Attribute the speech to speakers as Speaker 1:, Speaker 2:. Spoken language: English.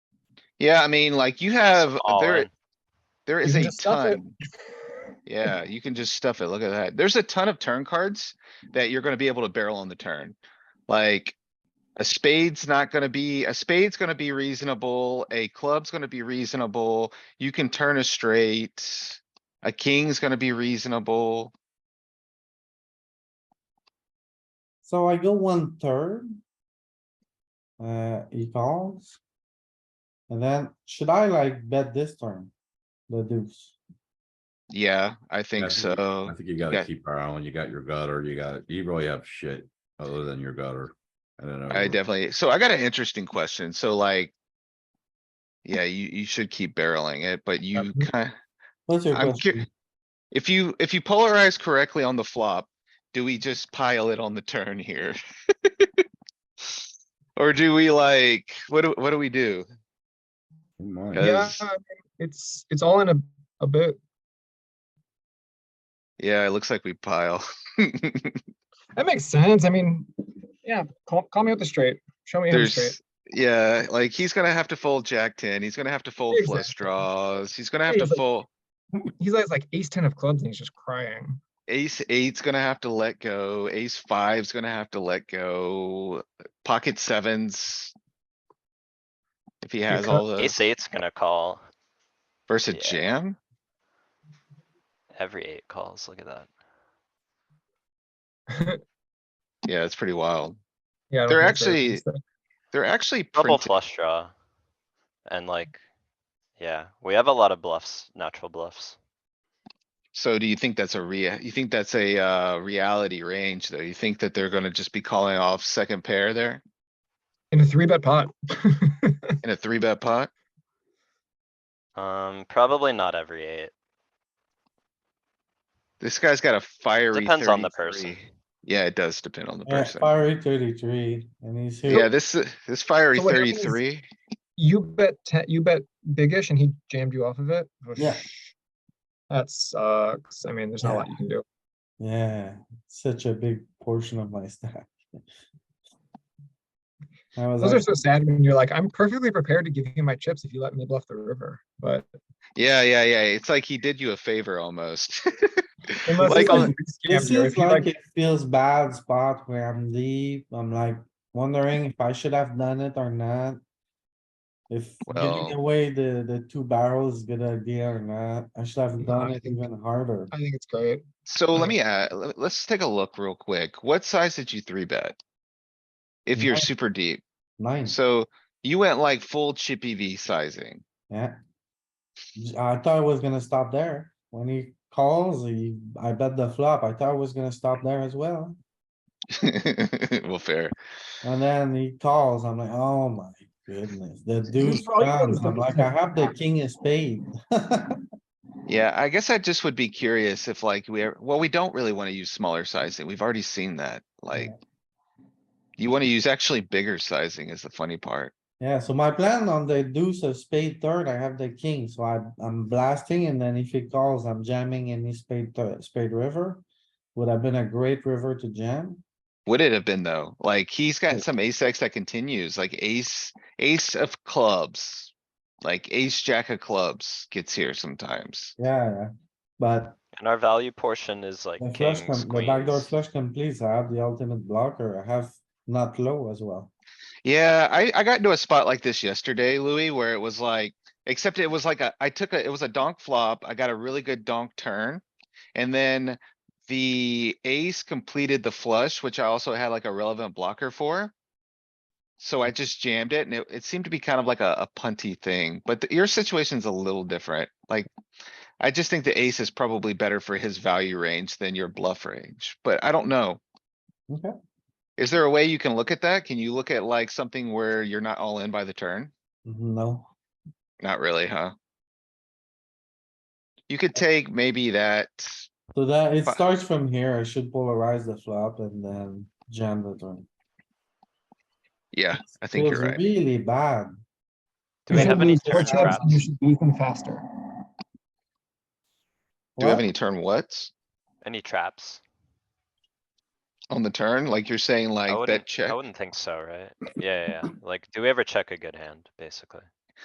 Speaker 1: Yeah, I mean, like you have,
Speaker 2: All
Speaker 1: there,
Speaker 2: in.
Speaker 1: there
Speaker 3: You
Speaker 1: is
Speaker 3: can
Speaker 1: a
Speaker 3: just stuff it.
Speaker 1: ton. Yeah, you can just stuff it. Look at that. There's a ton of turn cards that you're gonna be able to barrel on the turn. Like, a spade's not gonna be, a spade's gonna be reasonable, a club's gonna be reasonable, you can turn a straight. A king's gonna be reasonable.
Speaker 3: So I go one third. Uh, he calls. And then should I like bet this turn? The deuce.
Speaker 1: Yeah, I
Speaker 4: Yeah, I
Speaker 1: think
Speaker 4: think you-
Speaker 1: so.
Speaker 4: I think you
Speaker 1: Yeah.
Speaker 4: gotta keep our eye on, you got your gutter, you got, you really have shit other than your gutter. I don't know.
Speaker 1: I definitely, so I got an interesting question, so like. Yeah, you, you should keep barreling it, but you kind,
Speaker 3: What's your
Speaker 1: I'm
Speaker 3: question?
Speaker 1: curious. If you, if you polarize correctly on the flop, do we just pile it on the turn here? Or do we like, what do, what do we do?
Speaker 4: Never mind.
Speaker 1: Yeah.
Speaker 5: Yeah, I mean, it's, it's all in a, a bit.
Speaker 1: Yeah, it looks like we pile.
Speaker 5: That makes sense. I mean, yeah, call, call me with the straight. Show me him straight.
Speaker 1: There's, yeah, like he's gonna have to fold jack ten, he's gonna have to fold flush
Speaker 5: Exactly.
Speaker 1: draws, he's gonna have to
Speaker 5: He's like-
Speaker 1: fold.
Speaker 5: He's like, like ace ten of clubs and he's just crying.
Speaker 1: Ace eight's gonna have to let go, ace five's gonna have to let go, pocket sevens. If he has
Speaker 5: cut-
Speaker 1: all the
Speaker 2: Ace eight's gonna call.
Speaker 1: versus
Speaker 2: yeah.
Speaker 1: jam,
Speaker 2: Every eight calls, look at that.
Speaker 1: yeah, it's pretty wild.
Speaker 5: Yeah. I don't
Speaker 1: They're
Speaker 5: think so. uh,
Speaker 1: actually-
Speaker 5: It's like-
Speaker 1: They're actually
Speaker 2: Double
Speaker 1: printed,
Speaker 2: flush draw. And like, yeah, we have a lot of bluffs, natural bluffs.
Speaker 1: so do you think that's a rea, you think that's a, uh, reality range though? You think that they're gonna just be calling off second pair there
Speaker 5: In a three bet pot.
Speaker 1: in a three bet pot?
Speaker 2: Um, probably not every eight.
Speaker 1: This guy's got a fiery
Speaker 2: Depends on the person.
Speaker 1: 33. Yeah, it does depend on the
Speaker 3: Yeah,
Speaker 1: person.
Speaker 3: Uh, Fiery thirty-three and he's here.
Speaker 1: Yeah, this, uh, this fiery
Speaker 5: So what happens-
Speaker 1: thirty-three,
Speaker 5: You bet ten, you bet biggish and he jammed you off of it.
Speaker 3: Yeah.
Speaker 5: Whoosh. That sucks. I mean, there's not a lot you can do.
Speaker 3: Yeah, such a big portion of my stack. I was
Speaker 5: Those are
Speaker 3: like,
Speaker 5: so sad when you're like, I'm perfectly prepared to give you my chips if you let me bluff the river, but.
Speaker 1: yeah, yeah, yeah, it's like he did you a favor almost.
Speaker 5: unless
Speaker 1: Like
Speaker 5: it's
Speaker 1: on-
Speaker 5: like you
Speaker 3: this
Speaker 5: scammed her,
Speaker 3: feels
Speaker 5: if you like-
Speaker 3: like it feels bad spot where I'm deep. I'm like wondering if I should have done it or not. If
Speaker 1: Well-
Speaker 3: giving away the, the two barrels is a good idea or not. I should have
Speaker 5: No,
Speaker 3: done
Speaker 5: I
Speaker 3: it
Speaker 5: think-
Speaker 3: even harder.
Speaker 5: I think it's great.
Speaker 1: So let
Speaker 5: Right.
Speaker 1: me, uh, let's take a look real quick. What size did you three bet? If you're
Speaker 3: Nine.
Speaker 1: super deep,
Speaker 3: Nine,
Speaker 1: so you went like full chippy V sizing.
Speaker 3: yeah. J- I thought I was gonna stop there. When he calls, he, I bet the flop. I thought I was gonna stop there as well.
Speaker 1: Well, fair.
Speaker 3: And then he calls, I'm like, oh my goodness, the deuce
Speaker 5: all you want
Speaker 3: comes,
Speaker 5: is
Speaker 3: I'm
Speaker 5: the-
Speaker 3: like, I have the king of spade.
Speaker 1: Yeah, I guess I just would be curious if like we are, well, we don't really wanna use smaller sizing. We've already seen that, like. You wanna use actually bigger sizing is the funny part.
Speaker 3: Yeah, so my plan on the deuce of spade third, I have the king, so I, I'm blasting and then if he calls, I'm jamming any spade, thir- spade river. Would have been a great river to jam.
Speaker 1: Would it have been though? Like, he's
Speaker 3: Yeah.
Speaker 1: got some ace X that continues, like ace, ace of clubs. Like ace, jack of clubs gets here sometimes.
Speaker 3: Yeah, yeah. But
Speaker 2: And our value portion is like
Speaker 3: the flush,
Speaker 2: kings,
Speaker 3: com- the backdoor
Speaker 2: queens.
Speaker 3: flush completes, I have the ultimate blocker, I have not low as well.
Speaker 1: Yeah, I, I got into a spot like this yesterday, Louis, where it was like, except it was like a, I took a, it was a donk flop. I got a really good donk turn. And then the ace completed the flush, which I also had like a relevant blocker for. So I just jammed it and it, it seemed to be kind of like a, a punty thing, but the- your situation's a little different. Like, I just think the ace is probably better for his value range than your bluff range, but I don't know.
Speaker 3: Okay.
Speaker 1: Is there a way you can look at that? Can you look at like something where you're not all in by the turn?
Speaker 3: Mm-hmm, No,
Speaker 1: Not really, huh? You could take maybe that,
Speaker 3: so that, it
Speaker 1: Fi-
Speaker 3: starts from here, I should polarize the flop and then jam the turn.
Speaker 1: yeah, I think
Speaker 3: Feels
Speaker 1: you're right.
Speaker 3: Really bad.
Speaker 2: Do we
Speaker 5: You
Speaker 2: have
Speaker 5: should
Speaker 2: any
Speaker 5: lose your
Speaker 2: turn
Speaker 5: chips and You
Speaker 2: traps?
Speaker 5: should lose them faster.
Speaker 1: Do you have
Speaker 3: What?
Speaker 1: any turn whats
Speaker 2: Any traps?
Speaker 1: on the turn? Like you're saying
Speaker 2: I
Speaker 1: like
Speaker 2: wouldn't-
Speaker 1: bet check?
Speaker 2: I wouldn't think so, right? Yeah, yeah, yeah. Like, do we ever check a good hand, basically?